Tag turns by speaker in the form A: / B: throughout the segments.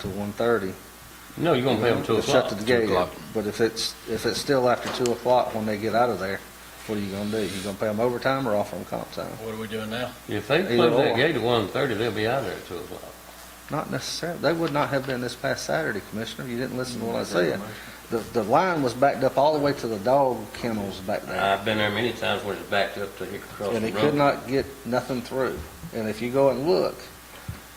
A: to 1:30.
B: No, you're gonna pay them two o'clock.
A: Shut the gate, but if it's, if it's still after 2 o'clock when they get out of there, what are you gonna do? You gonna pay them overtime or offer them comp time?
C: What are we doing now?
B: If they
A: Either
B: close
A: or.
B: that gate at one thirty, they'll be out of there at two o'clock.
A: Not necessarily, they would not have been this past Saturday, Commissioner, you didn't listen to what I said. The, the line was backed up all the way to the dog kennels back there,
B: I've been there many times where it's backed up to here across the
A: and
B: road.
A: it could not get nothing through. And if you go and look,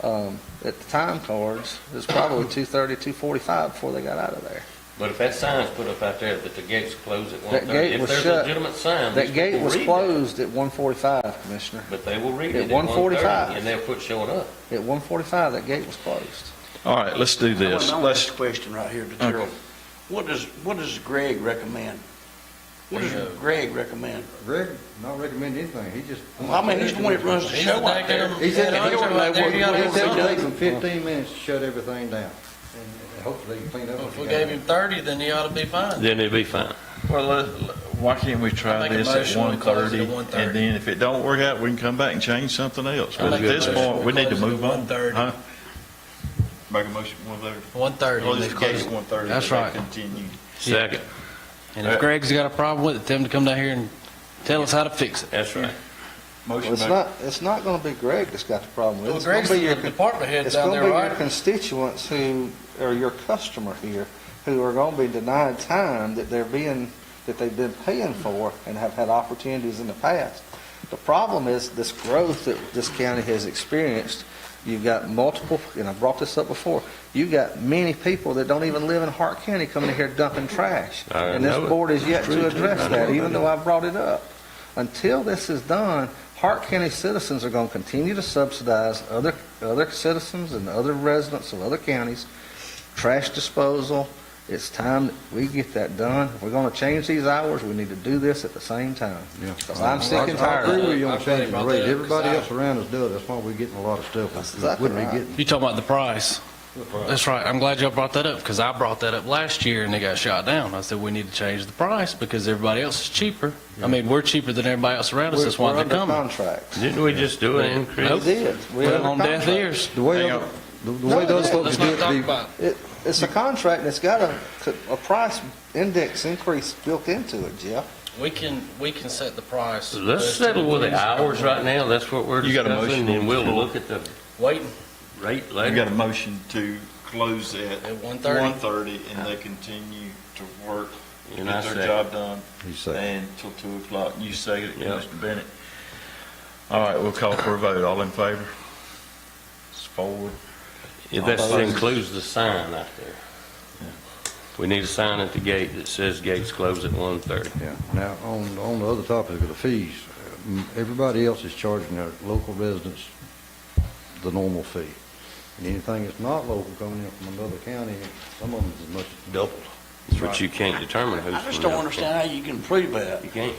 A: um, at the time cards, it's probably 2:30, 2:45 before they got out of there.
B: But if that sign's put up out there that the gate's closed at one
A: That
B: thirty,
A: gate
B: if
A: was
B: there's a
A: shut.
B: legitimate sign, these
A: That gate
B: people
A: was
B: read that.
A: closed at 1:45, Commissioner.
B: But they will read
A: At
B: it at
A: 1:45.
B: 1:30, and they'll quit showing up.
A: At 1:45, that gate was closed.
D: All right, let's do this.
E: I want to ask
D: Let's,
E: a question right here to
D: Okay.
E: Gerald. What does, what does Greg recommend? What does Greg recommend?
F: Greg, not recommend anything, he just.
E: Well, I mean, he's the one that runs the
C: He's
E: show
C: the
E: out there.
C: goddamn-
F: He said,
C: Yeah,
F: he
C: I'm right there, you gotta
F: said
C: have
F: it
C: something.
F: takes him fifteen minutes to shut everything down, and and hopefully he can clean
C: If
F: up.
C: we
F: what he got.
C: gave him thirty, then he ought to be fine.
B: Then they'll be fine.
D: well, let- let- why can't we
C: I
D: try
C: make a
D: this at
C: motion, we close it at
D: 1:30?
C: 1:30.
D: And then if it don't work out, we can come back and change something else.
C: I
D: But at
C: make a
D: this
C: motion,
D: point,
C: we
D: we need to
C: close it at
D: move on.
C: 1:30.
D: Huh? Make a motion, one thirty.
C: One thirty.
D: one thirty.
G: That's they right.
D: Continue.
B: Second.
C: And if Greg's got a problem with it, tell him to come down here and tell us how to fix it.
B: That's right.
A: Well,
D: Motion
A: it's not, it's not gonna be Greg that's got the problem with it.
C: Well,
A: It's gonna
C: Greg's
A: be your
C: the department head
A: It's
C: down
A: gonna
C: there,
A: be your
C: right?
A: constituents who, or your customer here, who are gonna be denied time that they're being, that they've been paying for and have had opportunities in the past. The problem is this growth that this county has experienced, you've got multiple, and I brought this up before, you've got many people that don't even live in Hart County coming in here dumping trash.
B: I
A: And this
B: know it.
A: board is yet to
B: True, too. I
A: address
B: know
A: that,
B: it.
A: even though I brought it up. Until this is done, Hart County citizens are going to continue to subsidize other, other citizens and other residents of other counties, trash disposal. It's time that we get that done. If we're going to change these hours, we need to do this at the same time.
F: Yeah.
A: 'Cause I'm sick and
F: I- I agree
A: tired.
F: with you
C: I'm
F: on
C: glad you
F: changing the
C: brought
F: rate,
C: that up, 'cause
F: everybody
C: I-
F: else around us does, that's why we're getting a lot of
A: That's
F: stuff we
A: exactly
F: wouldn't be
A: right.
F: getting.
C: You talking about the price? That's right. I'm glad y'all brought that up because I brought that up last year and they got shot down. I said, we need to change the price because everybody else is cheaper. I mean, we're cheaper than everybody else around us.
A: We're
C: That's why
A: we're
C: they're
A: under
C: coming.
A: contract.
B: Didn't we just do an
A: We
B: increase?
A: did.
C: We're
A: We're
C: on
A: under
C: death
A: contract.
C: ears.
F: The way,
D: Hang
F: other-
D: on.
F: the the way those folks
C: Let's
F: do
C: not
F: it,
C: talk
F: they-
C: about it.
A: It's a contract that's got a, a price index increase built into it, Jeff.
C: We can, we can set the price.
B: Let's settle with the hours right now, that's what we're
D: You got a motion
B: discussing,
D: on
B: and
D: the
B: we'll
D: floor.
B: look at the
C: Waiting
B: rate
D: You
B: later.
D: got a motion to close at
C: at one
D: one
C: thirty.
D: thirty and they continue to work,
B: And
D: get
B: I
D: their
B: second.
D: job done
F: he said,
D: and till two o'clock. You say it,
B: Yep.
D: Mr. Bennett. All right, we'll call for a vote. All in favor? It's four.
B: If that includes the sign out there. We need a sign at the gate that says gates close at one thirty.
F: yeah. Now, on, on the other topic of the fees, um, everybody else is charging their local residents the normal fee. And anything that's not local coming in from another county, some of them is as much as double.
B: But you can't determine who's.
E: I just
B: from
E: don't
B: there.
E: understand how you can prove that.
B: You can't.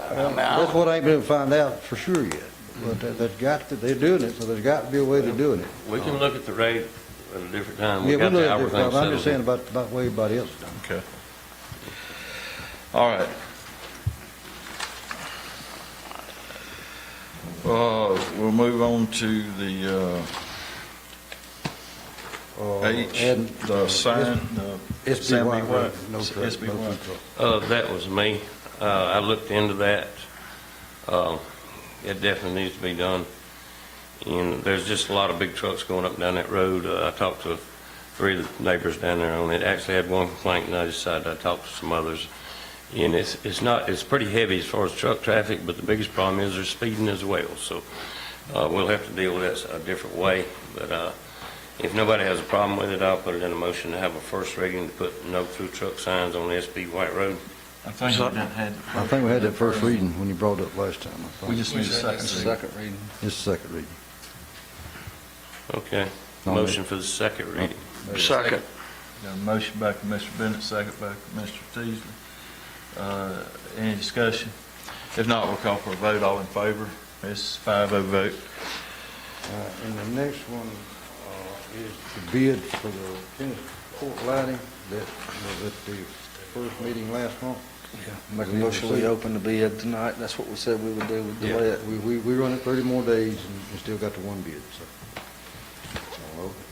E: I mean, I-
F: That's what I ain't been able to find out for sure yet, but there- there's got, to- they're doing it, so there's got to be a way to doing it.
B: We can look at the rate at a different time.
F: Yeah,
B: We
F: we
B: got
F: know
B: the
F: that
B: hour
F: different,
B: thing
F: but I'm just saying
B: settled.
F: about, about way everybody else is doing.
D: Okay. All right. Uh, we'll move on to the, uh,
F: Uh,
D: H,
F: and-
D: the sign, uh, the
F: SBY,
D: SBY,
F: road, no truck,
D: SBY.
F: no food truck.
B: Uh, that was me. Uh, I looked into that. Uh, it definitely needs to be done. And there's just a lot of big trucks going up and down that road. Uh, I talked to three of the neighbors down there on it. Actually had one complaint and I decided I talked to some others. And it's, it's not, it's pretty heavy as far as truck traffic, but the biggest problem is they're speeding as well. So, uh, we'll have to deal with that a different way. But, uh, if nobody has a problem with it, I'll put it in a motion to have a first reading to put no through truck signs on SB White Road.
D: I think we done had,
F: I think we had that first reading when you brought it up last time. I
D: we
F: think.
D: just need a second.
A: Second reading.
F: It's the second reading.
B: Okay,
F: No, no.
B: motion for the second reading.
E: Second.
D: Got a motion by Commissioner Bennett, second by Commissioner Teasley. Uh, any discussion? If not, we'll call for a vote. All in favor? It's five oh vote.
F: Uh, And the next one uh, is the bid for the tennis court lighting that was at the first meeting last month.
A: Make a motion, we open the bid tonight, that's what we said we would do with
F: Yeah,
A: delay it.
F: We, we, we run it thirty more days and we still got the one bid, so. I'll open